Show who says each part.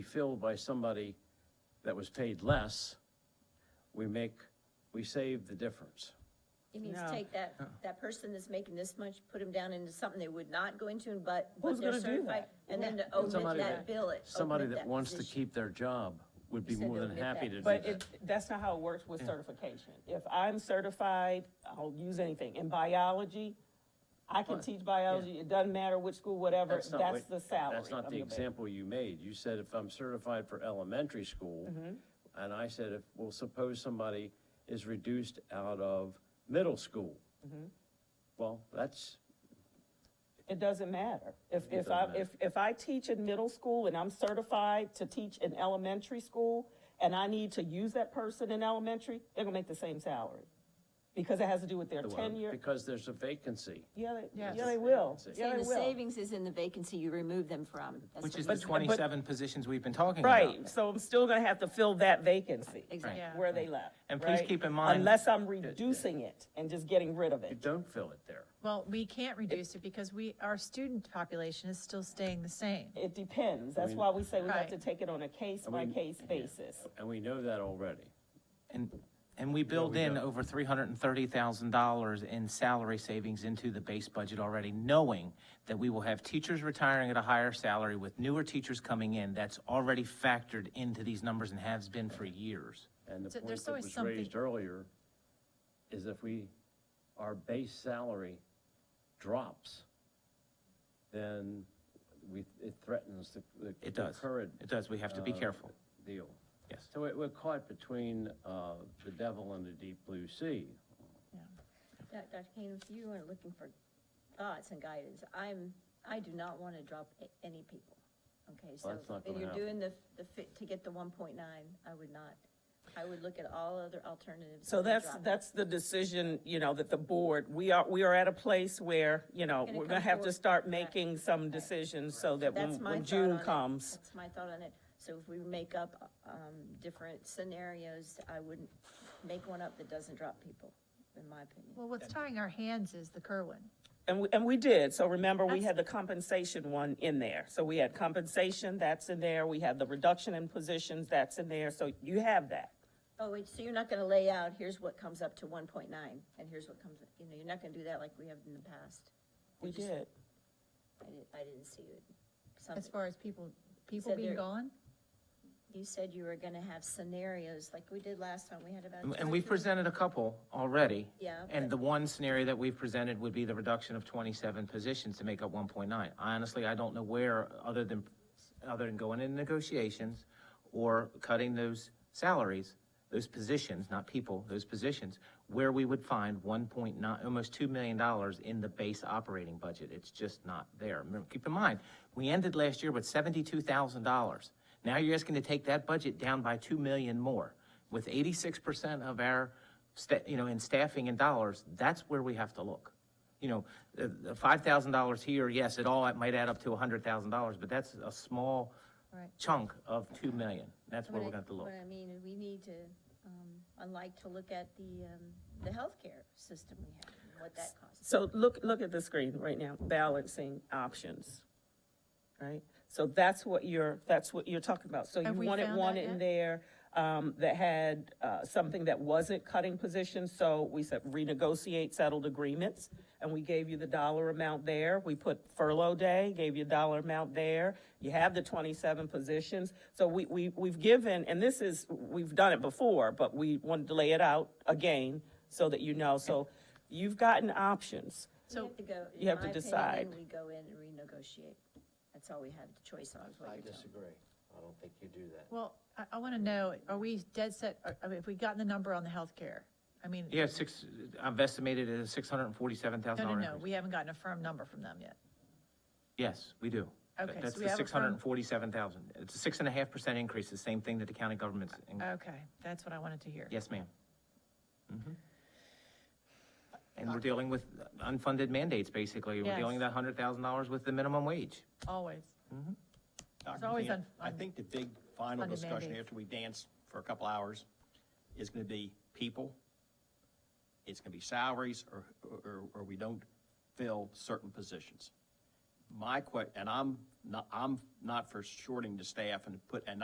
Speaker 1: be filled by somebody that was paid less, we make, we save the difference.
Speaker 2: It means
Speaker 3: No. Uh.
Speaker 2: take that, that person that's making this much, put them down into something they would not go into, and but,
Speaker 3: Who's
Speaker 2: but they're
Speaker 3: gonna do
Speaker 2: certified.
Speaker 3: that?
Speaker 2: And then to open
Speaker 1: Somebody
Speaker 2: that
Speaker 1: that-
Speaker 2: bill, it.
Speaker 1: Somebody
Speaker 2: open
Speaker 1: that wants to
Speaker 2: position.
Speaker 1: keep their job would be
Speaker 2: You said
Speaker 1: more
Speaker 2: to
Speaker 1: than
Speaker 2: admit
Speaker 1: happy
Speaker 2: that.
Speaker 1: to do
Speaker 3: But
Speaker 1: that.
Speaker 3: it, that's not how it works with certification. If I'm certified, I'll use anything. In biology, I can
Speaker 1: Right.
Speaker 3: teach biology, it doesn't matter which school, whatever,
Speaker 1: That's not
Speaker 3: that's
Speaker 1: what-
Speaker 3: the salary.
Speaker 1: That's not
Speaker 3: I'm
Speaker 1: the
Speaker 3: gonna pay.
Speaker 1: example you made. You said if I'm certified for elementary school, and I said, if, well, suppose somebody is reduced out of middle school. Well, that's,
Speaker 3: It doesn't matter. If, if
Speaker 1: doesn't
Speaker 3: I,
Speaker 1: matter.
Speaker 3: if, if I teach in middle school and I'm certified to teach in elementary school, and I need to use that person in elementary, they're gonna make the same salary. Because it has to do with their
Speaker 1: the one,
Speaker 3: tenure.
Speaker 1: because there's a vacancy.
Speaker 3: Yeah, they,
Speaker 4: Yes.
Speaker 3: yeah, they will.
Speaker 1: Saying
Speaker 3: Yeah,
Speaker 2: Saying
Speaker 3: they
Speaker 2: the
Speaker 3: will.
Speaker 2: savings is in the vacancy you remove them from. That's
Speaker 4: Which
Speaker 2: what
Speaker 4: is
Speaker 2: you-
Speaker 4: the twenty-seven positions we've been talking about.
Speaker 3: Right, so I'm still gonna have to fill that vacancy.
Speaker 2: Exactly.
Speaker 4: Yeah.
Speaker 3: where they left.
Speaker 4: And please
Speaker 3: right?
Speaker 4: keep in mind-
Speaker 3: Unless I'm reducing it and just getting rid of
Speaker 1: You
Speaker 3: it.
Speaker 1: don't fill it there.
Speaker 4: Well, we can't reduce it because we, our student population is still staying the same.
Speaker 3: It depends. That's why we say we have to
Speaker 4: Right.
Speaker 3: take it on a case-by-case basis.
Speaker 1: And we know that already.
Speaker 5: And, and we build in
Speaker 1: don't.
Speaker 5: over three hundred and thirty thousand dollars in salary savings into the base budget already, knowing that we will have teachers retiring at a higher salary with newer teachers coming in. That's already factored into these numbers and has been for years.
Speaker 1: And the
Speaker 4: So
Speaker 1: point
Speaker 4: there's
Speaker 1: that
Speaker 4: always
Speaker 1: was
Speaker 4: something-
Speaker 1: raised earlier is if we, our base salary drops, then we, it threatens the, the
Speaker 5: It
Speaker 1: the
Speaker 5: does.
Speaker 1: current
Speaker 5: It does. We have to be
Speaker 1: uh,
Speaker 5: careful.
Speaker 1: Deal.
Speaker 5: Yes.
Speaker 1: So we- we're caught between, uh, the devil and the deep blue sea.
Speaker 2: Doc- Dr. Kane, if you are looking for thoughts and guidance, I'm, I do not want to drop a- any people. Okay, so
Speaker 1: that's not
Speaker 2: if
Speaker 1: gonna
Speaker 2: you're
Speaker 1: happen.
Speaker 2: doing the, the fit to get the one point nine, I would not. I would look at all other alternatives.
Speaker 3: So
Speaker 2: and
Speaker 3: that's,
Speaker 2: drop it.
Speaker 3: that's the decision, you know, that the board, we are, we are at a place where, you know,
Speaker 2: Gonna
Speaker 3: we're gonna
Speaker 2: come
Speaker 3: have to
Speaker 2: forward.
Speaker 3: start
Speaker 2: Right.
Speaker 3: making some decisions so that
Speaker 2: That's
Speaker 3: when,
Speaker 2: my
Speaker 3: when
Speaker 2: thought on
Speaker 3: June
Speaker 2: it.
Speaker 3: comes.
Speaker 2: That's my thought on it. So if we make up, um, different scenarios, I wouldn't make one up that doesn't drop people, in my opinion.
Speaker 4: Well, what's tying our hands is the Kerwin.
Speaker 3: And we, and we did, so remember, we had the compensation one in there. So we had compensation, that's in there, we had the reduction in positions, that's in there, so you have that.
Speaker 2: Oh, wait, so you're not gonna lay out, here's what comes up to one point nine, and here's what comes, you know, you're not gonna do that like we have in the past.
Speaker 3: We
Speaker 2: just-
Speaker 3: did.
Speaker 2: I didn't, I didn't see it.
Speaker 4: As
Speaker 2: Something,
Speaker 4: far as people, people
Speaker 2: Said
Speaker 4: being
Speaker 2: there-
Speaker 4: gone,
Speaker 2: you said you were gonna have scenarios like we did last time, we had about.
Speaker 5: And-
Speaker 2: two
Speaker 5: And
Speaker 2: or
Speaker 5: we've
Speaker 2: three.
Speaker 5: presented a couple already.
Speaker 2: Yeah,
Speaker 5: And
Speaker 2: but-
Speaker 5: the one scenario that we've presented would be the reduction of twenty-seven positions to make up one point nine. Honestly, I don't know where, other than, other than going into negotiations or cutting those salaries, those positions, not people, those positions, where we would find one point nine, almost two million dollars in the base operating budget. It's just not there. Remember, Keep in mind, we ended last year with seventy-two thousand dollars. Now you're asking to take that budget down by two million more with eighty-six percent of our, sta- you know, in staffing and dollars, that's where we have to look. You know, the, the five thousand dollars here, yes, it all, it might add up to a hundred thousand dollars, but that's a small
Speaker 4: Right.
Speaker 5: chunk of two million. That's where
Speaker 2: What
Speaker 5: we're
Speaker 2: I-
Speaker 5: gonna have to look.
Speaker 2: What I mean, is we need to, um, I like to look at the, um, the healthcare system we have, and what that costs.
Speaker 3: So look, look at the screen right now, balancing options, right? So that's what you're, that's what you're talking about. So you
Speaker 4: Have we
Speaker 3: wanted
Speaker 4: found
Speaker 3: one
Speaker 4: that
Speaker 3: in
Speaker 4: yet?
Speaker 3: there um, that had uh, something that wasn't cutting positions, so we said renegotiate settled agreements, and we gave you the dollar amount there. We put furlough day, gave you a dollar amount there. You have the twenty-seven positions, so we, we, we've given, and this is, we've done it before, but we wanted to lay it out again so that you know, so you've gotten options.
Speaker 2: We have to go, in
Speaker 3: you have to
Speaker 2: my opinion,
Speaker 3: decide.
Speaker 2: We go in and renegotiate. That's all we have the choice on, is what you're telling.
Speaker 1: disagree. I don't think you do that.
Speaker 4: well, I, I want to know, are we dead set, are- I mean, if we gotten the number on the healthcare? I mean.
Speaker 5: Yeah, six, I've estimated it as six hundred and forty-seven thousand
Speaker 4: No, no,
Speaker 5: dollars.
Speaker 4: no, we haven't gotten a firm number from them yet.
Speaker 5: Yes, we do.
Speaker 4: Okay, so
Speaker 5: That's
Speaker 4: we
Speaker 5: the
Speaker 4: have it
Speaker 5: six
Speaker 4: from-
Speaker 5: hundred and forty-seven thousand. It's a six and a half percent increase, the same thing that the county government's, in-
Speaker 4: Okay, that's what I wanted to hear.
Speaker 5: yes, ma'am. Mhm. And we're dealing with unfunded mandates, basically. We're
Speaker 4: Yes.
Speaker 5: dealing that hundred thousand dollars with the minimum wage.
Speaker 4: Always.
Speaker 6: Dr.
Speaker 4: always
Speaker 6: Kent,
Speaker 4: un-
Speaker 6: I
Speaker 4: un-
Speaker 6: think the big final
Speaker 4: unfunded
Speaker 6: discussion
Speaker 4: mandates.
Speaker 6: after we dance for a couple hours is gonna be people. It's gonna be salaries or, or, or we don't fill certain positions. My que, and I'm not, I'm not for shorting the staff and put, and